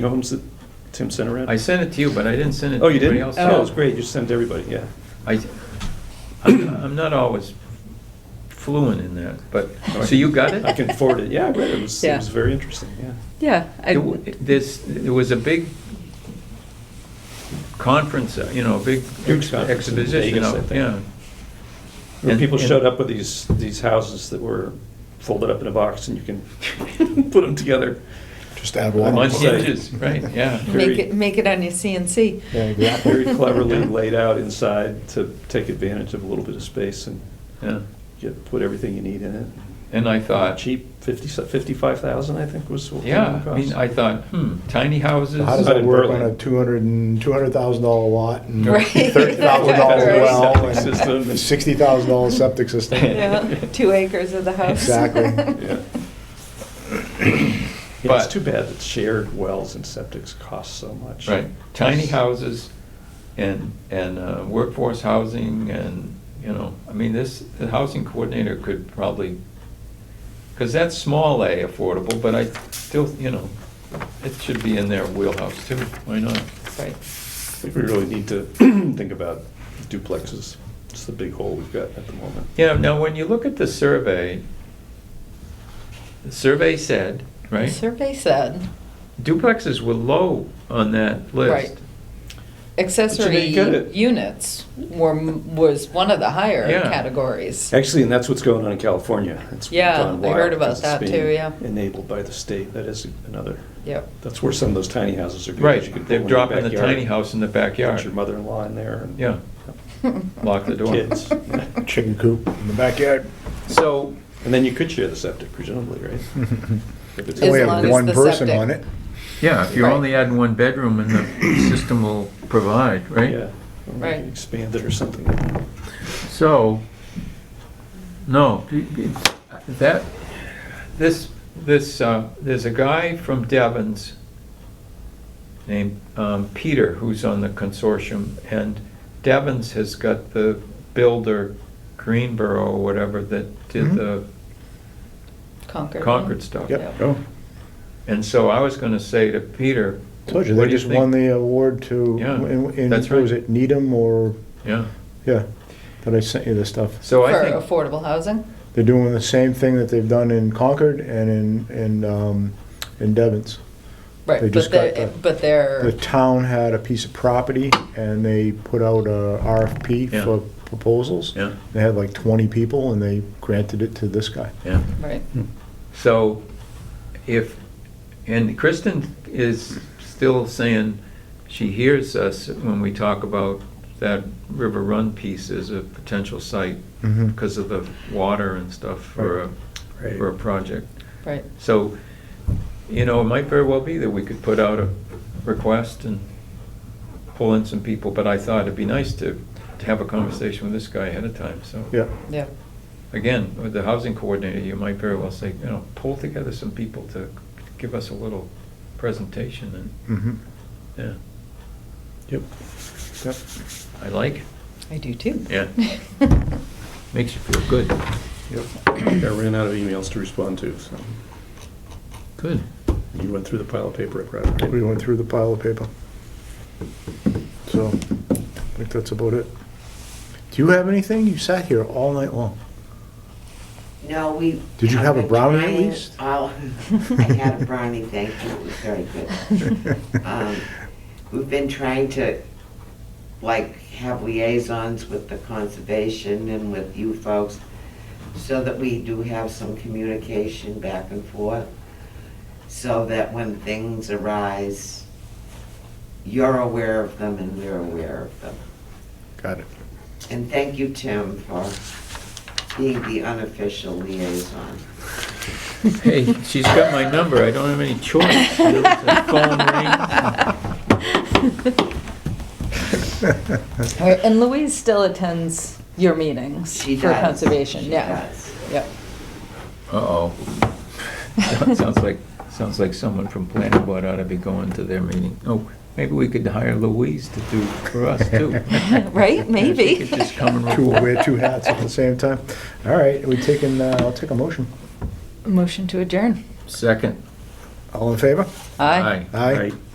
You know whom s- Tim sent around? I sent it to you, but I didn't send it Oh, to you anybody didn't? else. Oh, it was great, you sent everybody, yeah. I, I'm I'm not always fluent in that, but, so you got it? I can forward it, yeah, I read it, it was, it Yeah. was very interesting, yeah. Yeah. I- It w- This, there was a big conference, uh, you know, a big Huge ex- conference in exposition Vegas, I of, think. yeah. Where And- people and- showed up with these, these houses that were folded up in a box and you can put them together. Just add On one. On site. hinges, right, yeah. Very- Make it, make it on your CNC. Yeah, exactly. Very cleverly laid out inside to take advantage of a little bit of space and Yeah. get, put everything you need in it. And I thought. Cheap, fifty, fifty-five thousand, I think was what. the Uh, Yeah, I cost. mean, I thought, hmm, tiny houses. So How does Out that in work on Berlin. a two hundred and, two hundred thousand dollar lot and Right. thirty thousand dollar Right. well Septic system and and- sixty thousand dollar septic system? Yeah, Two acres of the house. Exactly. Yeah. Yeah, But- it's too bad that shared wells and septics cost so much. Right, tiny houses and, and uh, workforce housing and, you know, I mean, this, the housing coordinator could probably, because that's small A affordable, but I still, you know, it should be in their wheelhouse too, why not? Right. I think we really need to think about duplexes. It's the big hole we've got at the moment. You know, now, when you look at the survey, the survey said, The right, Survey said duplexes were low on that list. Right. accessory you get it. units were, m- was one of the higher Yeah. categories. Actually, and that's what's going on in California. It's Yeah, gone I wild heard about because it's that being too, yeah. Enabled by the state. That is another, Yep. that's where some of those tiny houses are. good, 'cause you can Right, put they're one in your dropping the backyard, tiny house in the Put backyard. your mother-in-law in there. and- Yeah, lock the door. Kids. Chicken coop in the backyard. So, And then you could share the septic presumably, right? If it's- We As only long have as one the person septic- on it. yeah, if you're Right. only adding one bedroom and the system will provide, Yeah. right? Or we Right. can Expand it or something. So, no, that, this, this, uh, there's a guy from Devon's named um, Peter who's on the consortium, and Devon's has got the builder Greenboro or whatever that did Mhm. the Concord. Concord stuff. Yep. Yeah. Oh, And so I was gonna say to Peter. Told you, what they do just think? won the award to, Yeah, in, in- that's what was right. it Needham or, Yeah, yeah, that I sent you the stuff. so For I think. affordable housing. They're doing the same thing that they've done in Concord and in, in, um, in Devens. They Right, but just got they, the- but they're. The town had a piece of property and they put out a RFP Yeah. for proposals. Yeah, They had like 20 people and they granted it to this guy. yeah. Right. So if, and Kristen is still saying she hears us when we talk about that River Run piece as a potential site Mhm. because of the water and stuff for a, Right. for a project. Right. So, you know, it might very well be that we could put out a request and pull in some people, but I thought it'd be nice to, to have a conversation with this guy ahead of time, so. Yeah. Yeah. Again, with the housing coordinator, you might very well say, you know, pull together some people to give us a little presentation Mhm. and, Yep. Yep. yeah, I like it. I do too. Yeah. Makes you feel good. Yep. I ran out of emails to respond to, so Good. you went through the pile of paper I brought. right? We went through the pile of paper. So, I think that's about it. Do you have anything? You sat here all night long. No, we. Did you have a brownie at least? Oh, I had a brownie, thank you, it was very good. Um, We've been trying to, like, have liaisons with the conservation and with you folks, so that we do have some communication back and forth, so that when things arise, you're aware of them and we're aware of them. Got it. And thank you, Tim, for being the unofficial liaison. Hey, she's got my number, I don't have any choice. You know, the phone rings. All right, And Louise still attends your meetings She for does. conservation, She yeah. does. Yep. Uh-oh. Sounds- Sounds like, sounds like someone from planning board ought to be going to their meeting. Oh, maybe we could hire Louise to do for us too. Right, She maybe. could just come and Two, report. wear two hats at the same time. All right, we taking, uh, I'll take a motion. Motion to adjourn. Second. All in favor? Aye. Aye. Right.